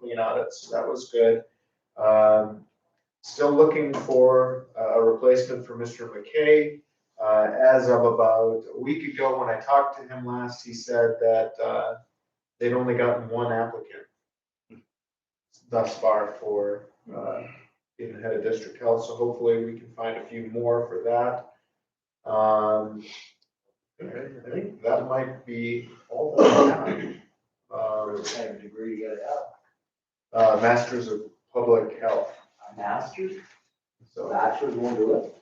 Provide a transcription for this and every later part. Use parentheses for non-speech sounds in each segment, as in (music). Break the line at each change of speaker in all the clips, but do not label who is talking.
union audits, so that was good. Um, Still looking for uh, a replacement for Mr. McKay. Uh, As of about a week ago, when I talked to him last, he said that uh, they'd only gotten one applicant thus far for uh, being the head of district health, so hopefully we can find a few more for that. Um, I think that might be all that I have.
For
Um,
the same degree you gotta have,
uh, Masters of Public Health,
a master's, so
so,
bachelor's won't do it.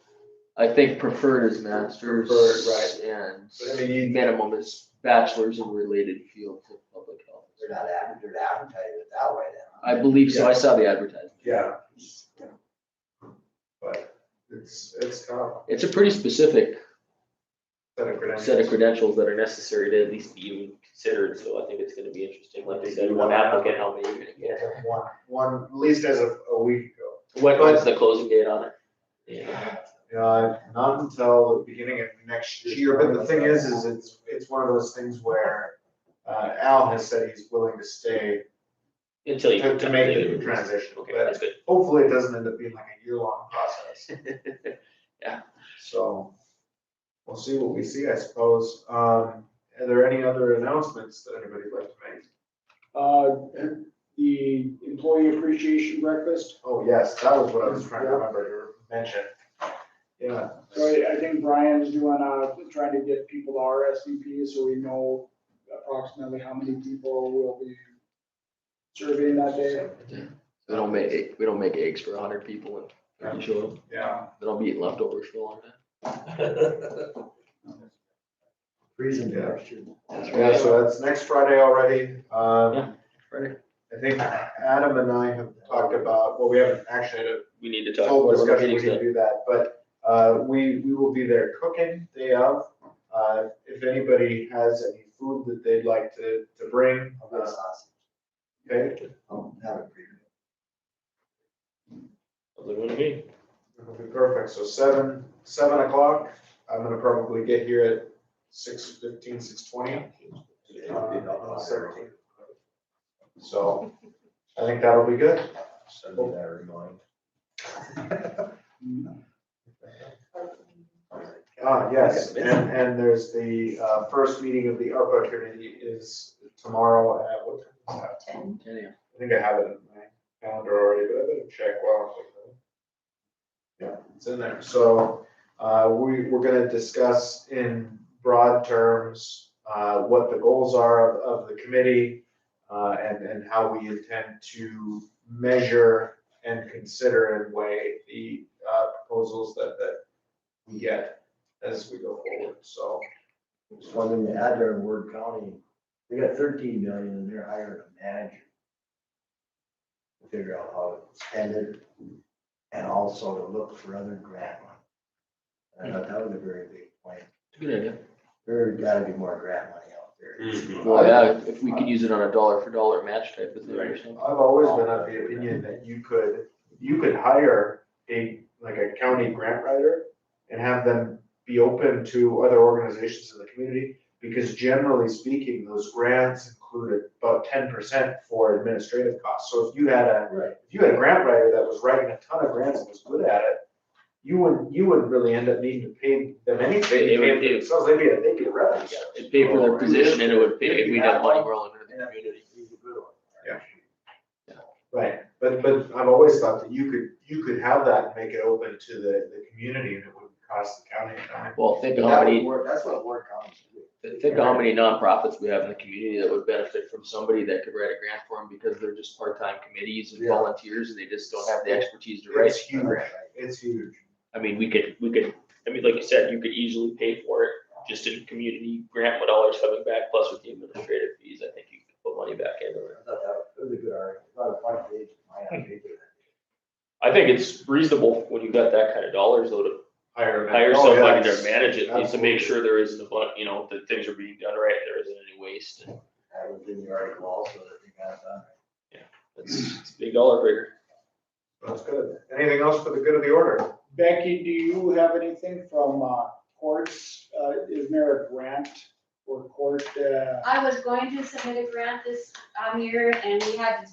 I think preferred is masters.
Preferred, right. I
And
mean, you-
minimum is bachelor's in related field to public health.
They're not, ad- they're advertising it that way
I believe so, I saw the advertisement.
yeah,
then.
but it's, it's tough,
It's a pretty specific
set of credentials.
set of credentials that are necessary to at least be even considered, so I think it's gonna be interesting, like I said, one applicant, how many you're gonna
Yeah,
get.
One, one, at least as of a week ago.
When, when's the closing date on it?
Uh, not until the beginning of next year, but the thing is, is it's, it's one of those things where, uh, Al has said he's willing to stay
Until you.
to, to make the transition,
Okay,
but
that's good.
hopefully it doesn't end up being like a year-long process, so. We'll see what we see, I suppose. Um, are there any other announcements that anybody'd like to make?
Uh, the employee appreciation breakfast,
Oh, yes, that was what I was trying to remember to mention. Yeah.
so I, I think Brian's doing, uh, trying to get people to RSVP so we know approximately how many people will be serving that day.
We don't make, egg- we don't make eggs for a hundred people and you show them,
Yeah.
then I'll be eating leftovers for a long time.
Freezing
Yeah.
temperature.
Yeah, so that's next Friday already. Um,
Friday.
I think Adam and I have talked about, well, we haven't actually had
We need to
a
talk.
full
about what our
discussion, we
meeting's
can do that, but, uh, we, we will be there cooking day of. Uh, if anybody has any food that they'd like to, to bring,
I'll get
uh,
sausage.
okay?
I'll have it for you.
done. What do you mean?
It'll be perfect, so seven, seven o'clock, I'm gonna probably get here at six fifteen, six twenty. Uh, So, I think that'll be good.
Send me that reminder.
(laughs) Ah, yes, and, and there's the, uh, first meeting of the ARPA committee is tomorrow at what time is that? I think I have it in my calendar already, but I better check while I'm looking. Yeah, it's in there. So, uh, we, we're gonna discuss in broad terms, uh, what the goals are of, of the committee, uh, and, and how we intend to measure and consider and weigh the, uh, proposals that, that we get as we go forward, so.
Just one thing to add there in Ward County, they got thirteen million and they're hiring a manager. to Figure out how to spend it and also to look for other grant money. And I thought that was a very big point.
Good idea.
There's gotta be more grant money out
Mm.
there.
Well, yeah, if we could use it on a dollar for dollar match type of thing or something.
I've always been of the opinion that you could, you could hire a, like a county grant writer and have them be open to other organizations in the community, because generally speaking, those grants included about ten percent for administrative costs. So if you had a,
Right.
if you had a grant writer that was writing a ton of grants and was good at it, you wouldn't, you wouldn't really end up needing to pay them anything.
They- they
They'd
would
be-
do.
themselves, they'd be, a- they'd be a revenue.
It'd pay for their position and it would pay, if we had money rolling into
And
the
I think
community.
it'd be a good one.
Yeah. Right, but, but I've always thought that you could, you could have that and make it open to the, the community and it wouldn't cost the county a dime.
Well, think of how
That would
many,
work, that's what Ward County's doing.
think of how many nonprofits we have in the community that would benefit from somebody that could write a grant for them because they're just part-time committees and
Yeah.
volunteers and they just don't have the expertise to write.
It's huge, it's huge.
I mean, we could, we could, I mean, like you said, you could easily pay for it just in community grant dollars coming back, plus with the administrative fees, I think you could put money back into it.
I thought that was a good argument, I thought a front page might not be good.
I think it's reasonable when you've got that kind of dollars though to
Hire a man-
hire
oh,
somebody
yeah,
to manage it, at least to
absolutely.
make sure there isn't a bunch, you know, that things are being done right, there isn't any waste. and
That was in the article also that they got done.
It's, it's a big dollar figure.
That's good. Anything else for the good of the order?
Becky, do you have anything from, uh, courts, uh, is there a grant or court, uh,
I was going to submit a grant this um, year and we had to